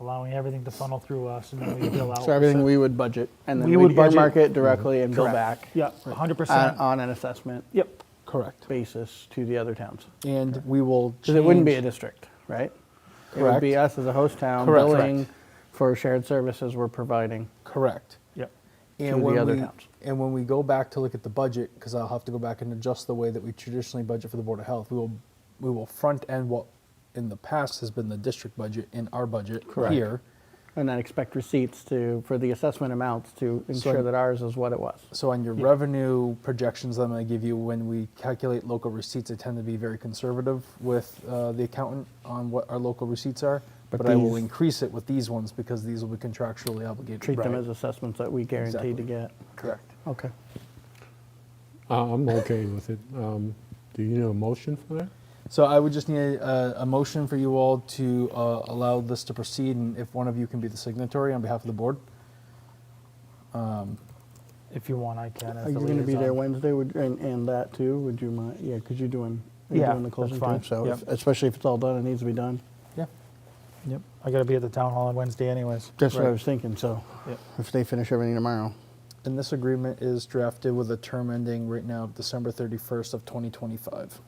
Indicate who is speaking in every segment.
Speaker 1: allowing everything to funnel through us and then we bill out.
Speaker 2: Oh, So everything
Speaker 1: So-
Speaker 2: we would budget and then
Speaker 1: We
Speaker 2: we
Speaker 1: would
Speaker 2: would
Speaker 1: budget-
Speaker 2: earmark it directly and bill
Speaker 1: Correct.
Speaker 2: back
Speaker 1: Yeah, 100%.
Speaker 2: on, on an assessment
Speaker 1: Yep,
Speaker 3: Correct.
Speaker 2: basis to the other towns.
Speaker 3: And we will change.
Speaker 2: Because it wouldn't be a district, right? It would be
Speaker 3: Correct.
Speaker 2: us as a host town
Speaker 3: Correct.
Speaker 2: billing for shared services we're providing.
Speaker 3: Correct.
Speaker 1: yep.
Speaker 2: to
Speaker 3: And
Speaker 2: the
Speaker 3: when
Speaker 2: other
Speaker 3: we,
Speaker 2: towns.
Speaker 3: and when we go back to look at the budget, because I'll have to go back and adjust the way that we traditionally budget for the Board of Health, we will, we will front end what in the past has been the district budget in our budget
Speaker 2: Correct.
Speaker 3: here.
Speaker 2: And then expect receipts to, for the assessment amounts to ensure that ours is what it was.
Speaker 3: So on your revenue projections that I'm going to give you, when we calculate local receipts, I tend to be very conservative with uh, the accountant on what our local receipts are.
Speaker 2: But
Speaker 3: But I will
Speaker 2: these-
Speaker 3: increase it with these ones because these will be contractually obligated.
Speaker 2: Treat them
Speaker 3: Right.
Speaker 2: as assessments that we guarantee to
Speaker 3: Exactly.
Speaker 2: get.
Speaker 3: Correct.
Speaker 2: Okay.
Speaker 4: Uh, I'm okay with it. Um, Do you need a motion for that?
Speaker 3: So I would just need a, a motion for you all to uh, allow this to proceed, and if one of you can be the signatory on behalf of the board.
Speaker 1: If you want, I can. as
Speaker 2: Are
Speaker 1: the
Speaker 2: you going to be
Speaker 1: liaison.
Speaker 2: there Wednesday would- and, and that too? Would you mind? Yeah, because you're doing, you're
Speaker 1: Yeah,
Speaker 2: doing the
Speaker 1: that's
Speaker 2: closing
Speaker 1: fine.
Speaker 2: too. So if-
Speaker 3: Yep.
Speaker 2: especially if it's all done, it needs to be done.
Speaker 3: Yeah.
Speaker 1: Yep, I gotta be at the town hall on Wednesday anyways.
Speaker 2: That's what I
Speaker 3: Right.
Speaker 2: was thinking. So
Speaker 1: Yep.
Speaker 2: if they finish everything tomorrow,
Speaker 3: And this agreement is drafted with a term ending right now December 31st of 2025.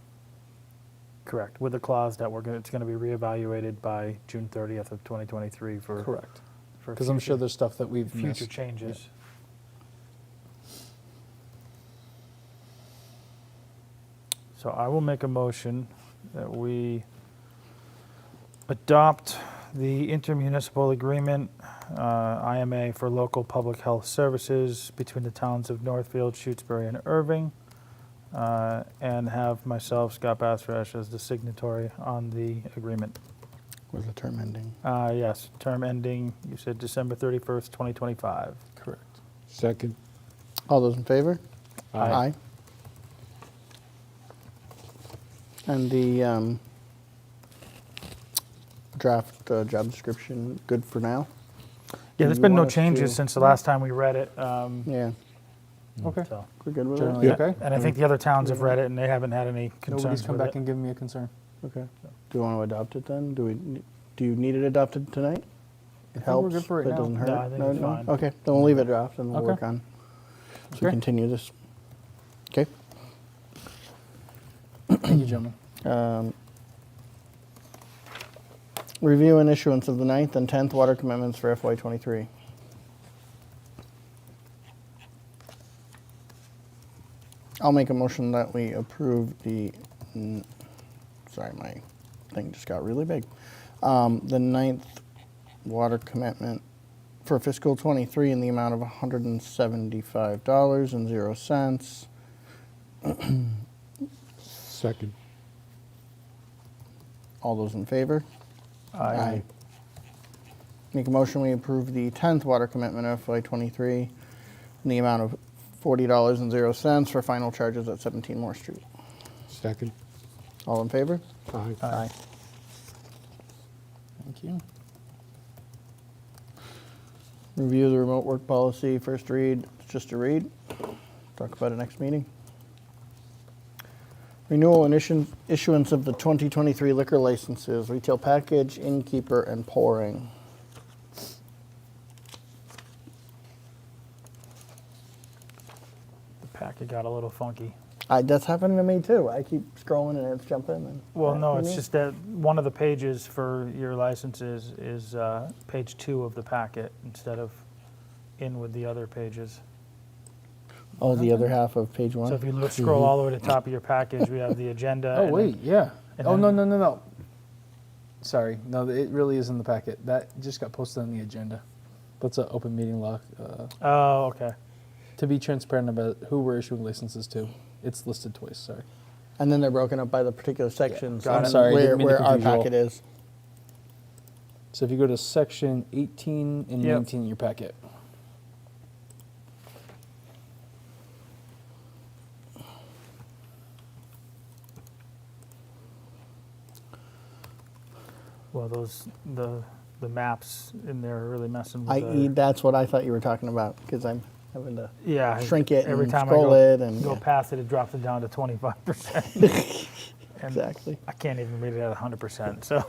Speaker 1: Correct, with the clause that we're gonna, it's gonna be reevaluated by June 30th of 2023 for.
Speaker 3: Correct.
Speaker 1: for
Speaker 3: Because I'm sure
Speaker 1: future-
Speaker 3: there's stuff that we've
Speaker 1: Future
Speaker 3: missed.
Speaker 1: changes. So I will make a motion that we adopt the intermunicipal agreement, uh, IMA, for local public health services between the towns of Northfield, Shutesbury, and Irving, uh, and have myself, Scott Bassresh, as the signatory on the agreement.
Speaker 2: with the term ending.
Speaker 1: Uh, Yes, term ending, you said December 31st, 2025.
Speaker 3: Correct.
Speaker 4: Second?
Speaker 2: All those in favor?
Speaker 1: Aye.
Speaker 2: And the um, draft uh, job description, good for now?
Speaker 1: Yeah, there's
Speaker 2: you
Speaker 1: been no
Speaker 2: want us
Speaker 1: changes
Speaker 2: to-
Speaker 1: since the last time we read it. um,
Speaker 2: Yeah,
Speaker 3: Okay.
Speaker 1: so-
Speaker 2: we're good with
Speaker 3: Generally
Speaker 2: it?
Speaker 4: Yeah.
Speaker 3: okay?
Speaker 1: And I think the other towns have read it and they haven't had any
Speaker 3: Nobody's
Speaker 1: concerns
Speaker 3: come
Speaker 1: with
Speaker 3: back
Speaker 1: it.
Speaker 3: and given me a concern.
Speaker 2: Okay. Do you want to adopt it then? Do we, ne- do you need it adopted tonight? It
Speaker 3: think we're
Speaker 2: helps,
Speaker 3: good for
Speaker 2: but
Speaker 3: right
Speaker 2: it
Speaker 3: now.
Speaker 2: doesn't hurt?
Speaker 1: No, I think it's
Speaker 2: no?
Speaker 1: fine.
Speaker 2: Okay, then we'll leave it draft and we'll
Speaker 3: Okay.
Speaker 2: work on, so
Speaker 3: Okay.
Speaker 2: continue this. Okay.
Speaker 3: Thank you, gentlemen.
Speaker 2: Um, Review and issuance of the ninth and 10th water commitments for FY '23. I'll make a motion that we approve the, mm, sorry, my thing just got really big. Um, The ninth water commitment for fiscal '23 in the amount of $175.00.
Speaker 4: Second.
Speaker 2: All those in favor?
Speaker 1: Aye.
Speaker 2: Make a motion, we approve the 10th water commitment FY '23 in the amount of $40.00 for final charges at 17 Moore Street.
Speaker 4: Second?
Speaker 2: All in favor?
Speaker 4: Aye.
Speaker 2: Thank you. Review the remote work policy, first read, it's just a read. Talk about it next meeting. Renewal and issu- issuance of the 2023 liquor licenses, retail package, innkeeper, and pouring.
Speaker 1: The packet got a little funky.
Speaker 2: I, that's happening to me too. I keep scrolling and it's jumping. And
Speaker 1: Well, no,
Speaker 2: You
Speaker 1: it's
Speaker 2: mean?
Speaker 1: just that one of the pages for your licenses is uh, page two of the packet instead of in with the other pages.
Speaker 2: Oh, the other half of page one.
Speaker 1: So if you look, scroll all the way to the top of your package, we have the agenda.
Speaker 3: Oh
Speaker 1: and then-
Speaker 3: wait, yeah.
Speaker 1: and
Speaker 3: Oh no
Speaker 1: then-
Speaker 3: no no no. Sorry, no. It really is in the packet. That just got posted on the agenda. That's an open meeting law. Uh,
Speaker 1: Oh, okay.
Speaker 3: to be transparent about who we're issuing licenses to, it's listed twice. Sorry.
Speaker 2: and then they're broken up by the particular sections.
Speaker 3: got
Speaker 2: and
Speaker 3: it. I'm sorry, I
Speaker 2: Where,
Speaker 3: didn't mean to
Speaker 2: where our
Speaker 3: confuse you all.
Speaker 2: packet is.
Speaker 3: So if you go to section 18 and
Speaker 1: Yep.
Speaker 3: 19 in your packet,
Speaker 1: Well, those, the, the maps in there are really messing with
Speaker 2: I, e,
Speaker 1: the.
Speaker 2: that's what I thought you were talking about because I'm having to.
Speaker 1: Yeah. I-
Speaker 2: shrink it
Speaker 1: every
Speaker 2: and
Speaker 1: time
Speaker 2: scroll
Speaker 1: I go,
Speaker 2: it and-
Speaker 1: go
Speaker 2: yeah.
Speaker 1: past it, it drops it down to 25%. and
Speaker 2: Exactly.
Speaker 1: I can't even read it at 100%. So